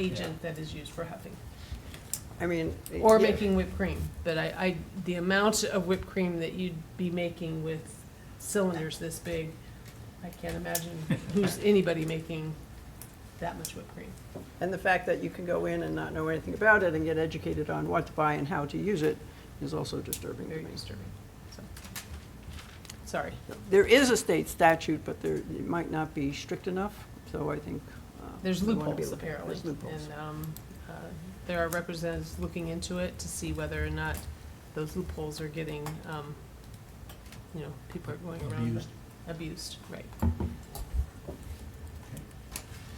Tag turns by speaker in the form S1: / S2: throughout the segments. S1: agent that is used for huffing.
S2: I mean.
S1: Or
S2: yeah.
S1: making whipped cream, but I, I, the amount of whipped cream that you'd be making with cylinders this big, I can't imagine who's anybody making that much whipped cream.
S2: And the fact that you can go in and not know anything about it and get educated on what to buy and how to use it is also disturbing to
S1: Very
S2: me.
S1: disturbing, so. Sorry.
S2: There is a state statute, but there, it might not be strict enough, so I think. uh,
S1: There's
S2: we wanna be
S1: loopholes
S2: looking-
S1: apparently.
S2: There's loopholes.
S1: And um, uh, there are representatives looking into it to see whether or not those loopholes are getting, um, you know, people are going around.
S3: Abused.
S1: Abused, right.
S3: Okay.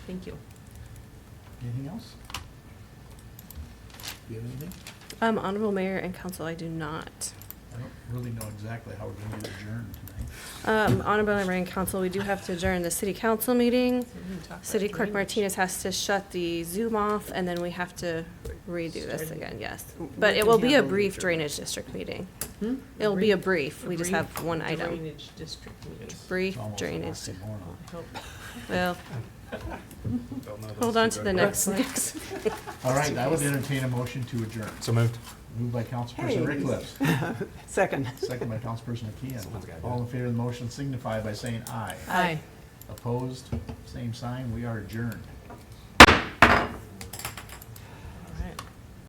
S1: Thank you.
S3: Anything else? Do you have anything?
S4: Um, Honorable Mayor and Council, I do not.
S3: I don't really know exactly how we're gonna get adjourned tonight.
S4: Um, Honorable Mayor and Council, we do have to adjourn the city council meeting.
S1: So we can talk about
S4: City Clerk
S1: drainage.
S4: Martinez has to shut the Zoom off, and then we have to redo this
S1: Start.
S4: again, yes.
S1: uh,
S2: We
S4: But it
S2: can
S4: will be a
S2: handle the
S4: brief
S2: adjournment.
S4: drainage district meeting.
S1: Hmm?
S4: It'll be a
S1: brief-
S4: brief, we just
S1: brief
S4: have one item.
S1: Drainage district meeting.
S3: It's
S4: Brief
S3: almost an
S4: drainage,
S3: oxymoron.
S1: I hope.
S4: well, hold on to the next, next.
S3: All right, I would entertain a motion to adjourn.
S5: So moved.
S3: Moved by Councilperson
S2: Hey.
S3: Rickliff,
S2: Second.
S3: second by Councilperson
S5: Someone's gotta
S3: McKeon.
S5: do
S3: All in favor of the motion signify by saying aye.
S1: Aye.
S3: Opposed, same sign, we are adjourned.